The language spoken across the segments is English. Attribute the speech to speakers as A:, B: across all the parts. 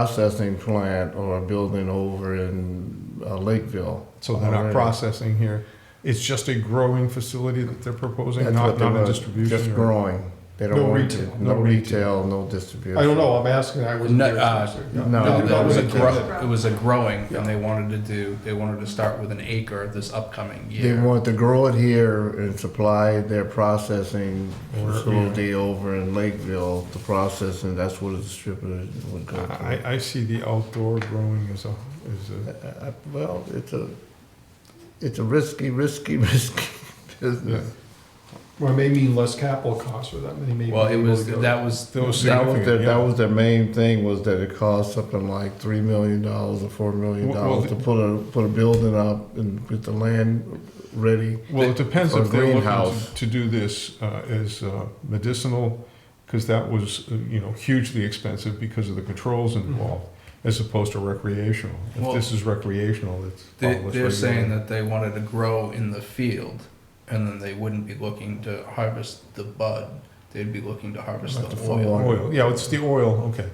A: processing plant or a building over in uh, Lakeville.
B: So they're not
A: already.
B: processing here. It's just a growing facility that they're proposing,
A: That's
B: not,
A: what they
B: not a
A: want,
B: distribution.
A: Just
B: or-
A: growing. They don't
B: No
A: want
B: retail,
A: to-
B: no
A: No retail, no distribution.
B: I don't know, I'm asking, I wasn't
C: No,
B: here.
C: uh,
A: No,
C: No,
A: that
C: that was a
A: was-
C: grow, it was a growing,
B: Yeah.
C: and they wanted to do, they wanted to start with an acre this upcoming
A: They
C: year.
A: want to grow it here and supply their processing
B: Or-
A: facility over in Lakeville to process, and that's what a distributor would go to.
B: I, I see the outdoor growing as a, as a,
A: Uh, Well, it's a, it's a risky, risky, risky
B: yeah.
A: business.
D: Well, it may mean less capital costs for them, they may. be
C: Well, it
D: able
C: was,
D: to go-
C: that was,
A: That
B: That was
A: was
B: significant,
A: their, that
B: yeah.
A: was their main thing, was that it cost something like three million dollars or four million
B: Well, well,
A: dollars to put a, put a building up and get the land ready.
B: Well, it depends
A: Or
B: if they're looking
A: greenhouse.
B: to- to do this uh, as uh, medicinal, because that was, uh, you know, hugely expensive because of the controls involved, as opposed to recreational. If
C: Well,
B: this is recreational, it's.
C: they-
B: all less
C: they're saying
B: regulated.
C: that they wanted to grow in the field, and then they wouldn't be looking to harvest the bud, they'd be looking to harvest
A: Like the
C: the
A: full
C: oil.
A: on.
B: Oil, yeah, it's the oil, okay.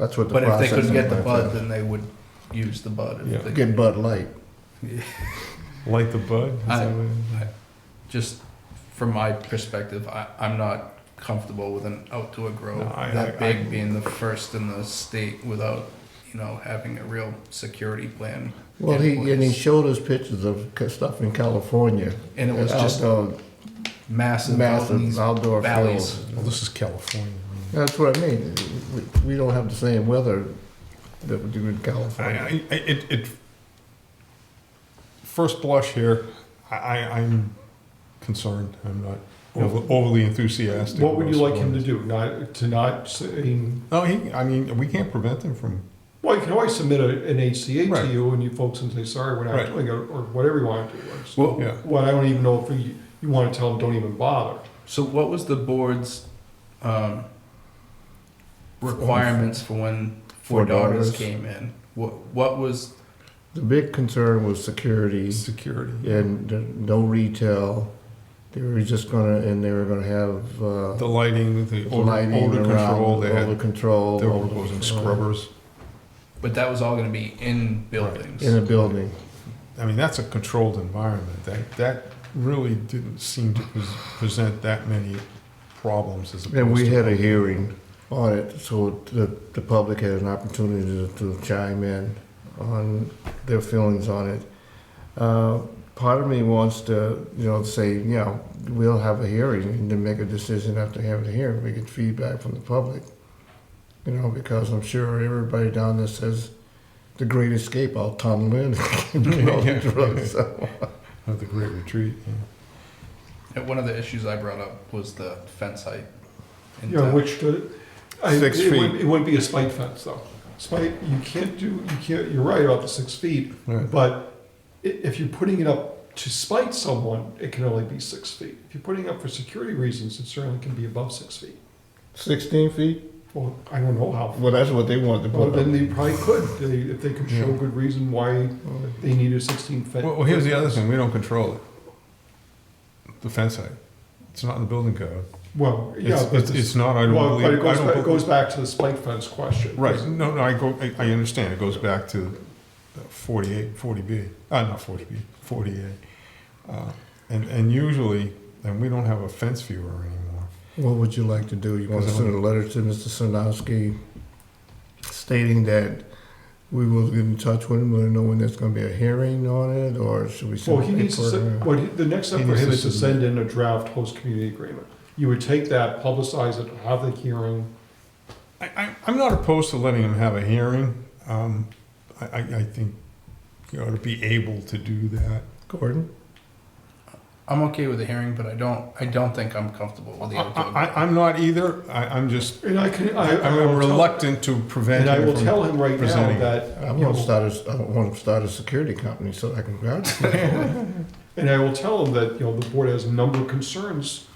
A: That's what the
C: But if they
A: processing.
C: couldn't get the
A: plant
C: bud, then they would use the bud.
B: Yeah.
C: if they-
A: is. Get Bud Light.
B: Light the bud? is
C: I-
B: that what it is?
C: Just from my perspective, I, I'm not comfortable with an outdoor grow
B: No, I-
C: that
B: I-
C: big
B: I-
C: being the first in the state without, you know, having a real security plan.
A: Well,
C: in
A: he, and he
C: place.
A: showed us pictures of ca- stuff in California.
C: And it was just
A: Outdoor-
C: massive, out in
A: Massive
C: these-
A: outdoor
C: valleys.
A: fields.
B: Well, this is California. I mean,
A: That's what I mean. We- We don't have the same weather that we do in
B: I,
A: California.
B: I, I- it, it, first blush here, I, I, I'm concerned. I'm not over- overly enthusiastic.
D: What would you
B: about
D: like him to
B: supporting
D: do? Not, to not, s- I mean,
B: this. No, he, I mean, we can't prevent him from,
D: well, you can always submit a- an HCA
B: Right.
D: to you and you folks can say, sorry, we're
B: Right.
D: not doing it, or whatever you want to do. It's-
C: Well,
B: yeah.
D: What, I don't even know if you, you want to tell them, don't even bother.
C: So, what was the board's um, requirements for when Four
A: Four
C: Daughters,
A: Daughters.
C: came in? What what was
A: The big concern was security.
B: Security.
A: and th- no retail. They were just gonna, and they were gonna have uh,
B: The lighting, the odor,
A: lighting
B: odor
A: around,
B: control, they
A: odor
B: had,
A: control.
B: they were
A: odor
B: proposing
A: control
B: scrubbers.
C: but that was all going to be in buildings.
A: in a building.
B: I mean, that's a controlled environment. That, that really didn't seem to pres- present that many problems as opposed to.
A: And we had a hearing on it, so the the public had an opportunity to, to chime in on their feelings on it. Uh, part of me wants to, you know, say, you know, we'll have a hearing and then make a decision after having a hearing. We get feedback from the public, you know, because I'm sure everybody down there says the Great Escape out Tom Lynn and all the drugs. So,
B: At the Great Retreat, yeah.
C: And one of the issues I brought up was the fence height. in
D: You know,
C: town.
D: which could. I-
B: Six
D: it wouldn't-
B: feet.
D: It wouldn't be a spike fence though. Spike, you can't do, you can't, you're right about the six feet,
B: Right.
D: but i- if you're putting it up to spite someone, it can only be six feet. If you're putting it up for security reasons, it certainly can be above six feet.
A: Sixteen feet?
D: Well, I don't know how.
A: Well, that's what they wanted to
D: Well,
A: put
D: then
A: up.
D: they probably could, they, if they could show
B: Yeah.
D: good reason why they need a sixteen foot.
B: Well, well, here's the other thing, we don't control it. The fence height, it's not in the building code.
D: Well, yeah.
B: It's,
D: but
B: it's, it's not, I don't
D: Well,
B: believe.
D: but it goes,
B: I don't
D: back- it
B: believe-
D: goes back to the spike fence question.
B: Right, no, no, I go, I, I understand, it goes back to forty-eight, forty B, uh, not forty B, forty-eight. Uh, And, and usually, and we don't have a fence viewer anymore.
A: What would you like to do? You want to send a letter to Mr. Sarnowski stating that we will get in touch with him, let him know when there's gonna be a hearing on it, or should we
D: Well,
A: send
D: he
A: a
D: needs to, send-
A: paper?
D: what, he- the next step
B: He
D: for
B: needs
D: him
B: to
D: is to
B: submit.
D: send in a draft host community agreement. You would take that, publicize it, have the hearing.
B: I, I, I'm not opposed to letting him have a hearing. Um, I, I, I think you ought to be able to do that.
A: Gordon?
C: I'm okay with the hearing, but I don't I don't think I'm comfortable with the
B: I,
C: outdoor.
B: I, I'm not either, I, I'm just,
D: And I can, I. I will
B: I'm
D: tell-
B: reluctant to prevent
D: And I
B: him
D: will
B: from.
D: tell him right now
B: presenting.
D: that,
A: I
D: you
A: want to
D: know,
A: start a, I want to start a security company so I can grab it.
D: and I will tell him that, you know, the board has a number of concerns,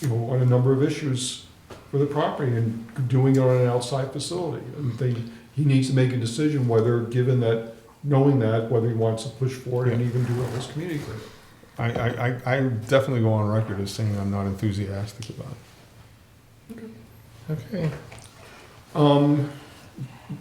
D: you know, on a number of issues for the property and doing it on an outside facility. And they, he needs to make a decision whether, given that, knowing that, whether he wants to push forward and even do a host community agreement.
B: I, I, I- I definitely go on record as saying I'm not enthusiastic about it.
A: Okay.
D: Um,